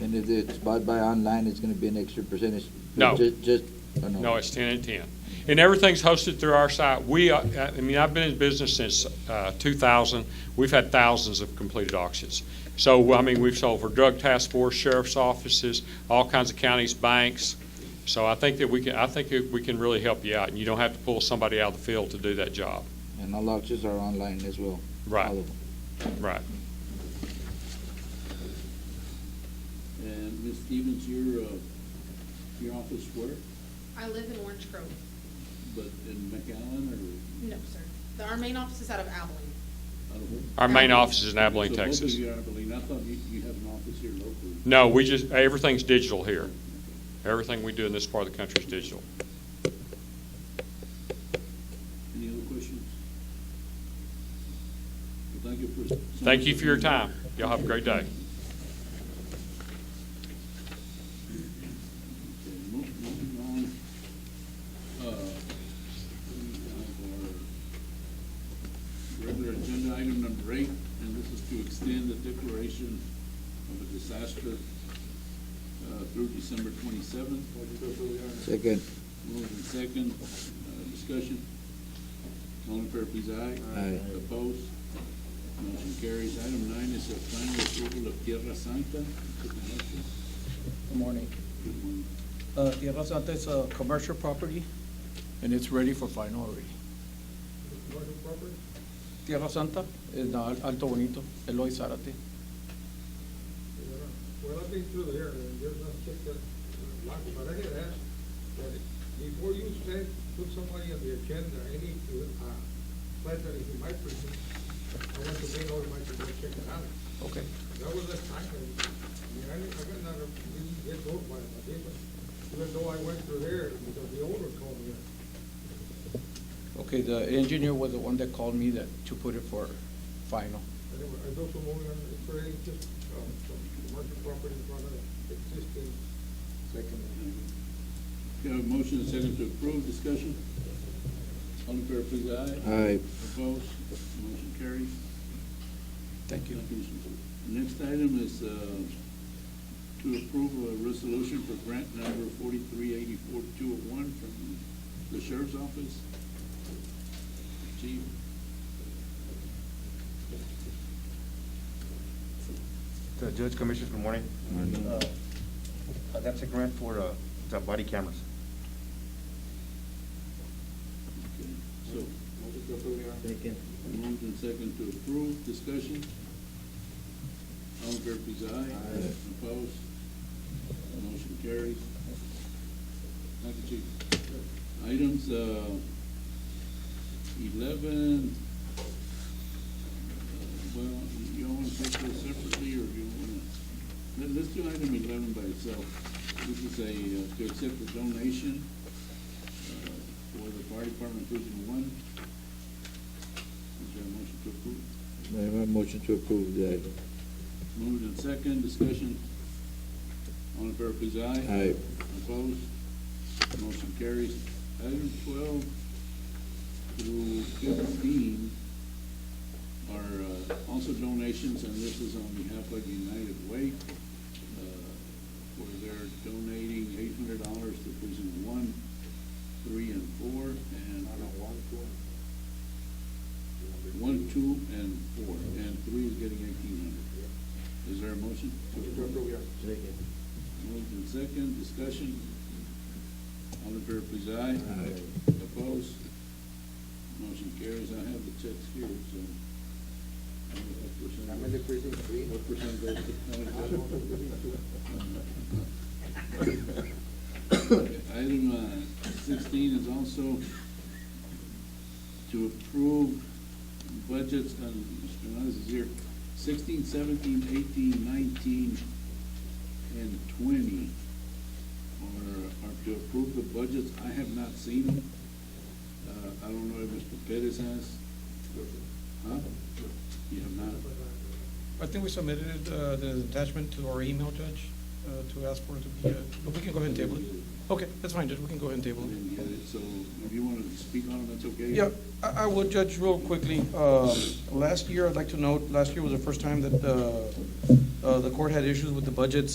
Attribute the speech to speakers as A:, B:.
A: And if it's bought by online, it's gonna be an extra percentage?
B: No.
A: Ju- Just, oh, no.
B: No, it's 10 and 10. And everything's hosted through our site. We, uh, I mean, I've been in business since uh, 2000. We've had thousands of completed auctions. So, I mean, we've sold for drug task force, sheriff's offices, all kinds of counties, banks. So I think that we can, I think that we can really help you out, and you don't have to pull somebody out of the field to do that job.
A: And all auctions are online as well? All
B: Right,
A: of them.
B: right.
C: And Ms. Stevens, your, uh, your office where?
D: I live in Orange Grove.
C: But in McAllen or
D: No, sir. The- Our main office is out of Abilene.
C: out of where?
B: Our main office is in Abilene,
C: So both of
B: Texas.
C: you are Abilene. I thought you, you have an office here locally.
B: No, we just, everything's digital here. Everything we do in this part of the country is digital.
C: Any other questions? Well, Thank you for.
B: Thank you for your time. Y'all have a great day.
C: Okay, mo- Moving on, uh, we have our regular agenda item number eight, and this is to extend the declaration of a disaster uh, through December twenty-seventh.
A: Second,
C: Moved and second, uh, discussion. All in fair, please, aye.
A: Aye.
C: Opposed? Motion carries. Item nine is a final approval of Tierra Santa. Take a motion.
E: Good morning.
C: Good one.
E: Uh, Tierra Santa is a commercial property, and it's ready for final already. Tierra Santa in uh, Alto Bonito, Eloy Zárate.
F: Well, I've been through there, and there's not just that lot, but I had asked, that before you said, put somebody on the agenda, any, uh, plant that is in my precinct, I want to make all my, to go check it out.
E: Okay.
F: That was the time, and, I mean, I, I got not, really get told by my neighbor, even though I went through there, because the owner called me up.
E: Okay, the engineer was the one that called me that, to put it for final.
F: And there were- I built some more, and it's really just, um, some commercial property in front of existing. Second.
C: We have a motion and second to approve, discussion. All in fair, please, aye.
A: aye,
C: Opposed, motion carries.
E: Thank you.
C: Thank you, Mr. Booth. Next item is uh, to approve a resolution for grant number forty-three eighty-four two oh one from the sheriff's office. Chief,
G: Uh, Judge, Commissioners, good morning. Uh, uh, That's a grant for uh, the body cameras.
C: okay, so. Moved and second to approve, discussion. All in fair, please, aye.
A: Aye.
C: Opposed, motion carries. Thank you, Chief. Items, uh, eleven, uh, well, you all want to take those separately, or you want to, let, let's do item eleven by itself. This is a, uh, to accept a donation, uh, for the fire department precinct one. Is there a motion to approve?
A: I have a motion to approve the item.
C: Moved and second, discussion. All in fair, please, aye.
A: Aye.
C: Opposed? Motion carries. Item twelve through fifteen are uh, also donations, and this is on behalf of United Way, uh, where they're donating eight hundred dollars to prison one, three, and four, and. one, two. One, two, and four, and three is getting eighteen hundred. Is there a motion? Moved and second, discussion. All in favor, please, aye.
A: Aye.
C: Opposed? Motion carries. I have the checks here, so. I don't know what percent- What percent goes to? how many goes- Item uh, sixteen is also to approve budgets, and Mr. Hernandez is here, sixteen, seventeen, eighteen, nineteen, and twenty are, are to approve the budgets. I have not seen them. Uh, I don't know if Mr. Perez has. Huh? You have not?
H: I think we submitted uh, the attachment to our email, Judge, uh, to ask for it to be, uh, but we can go ahead and table it. Okay, that's fine, Judge, we can go ahead and
C: I
H: table it.
C: didn't get it, so if you want to speak on it, that's okay.
H: Yeah, I I will, Judge, real quickly. Uh, Last year, I'd like to note, last year was the first time that uh, uh, the court had issues with the budgets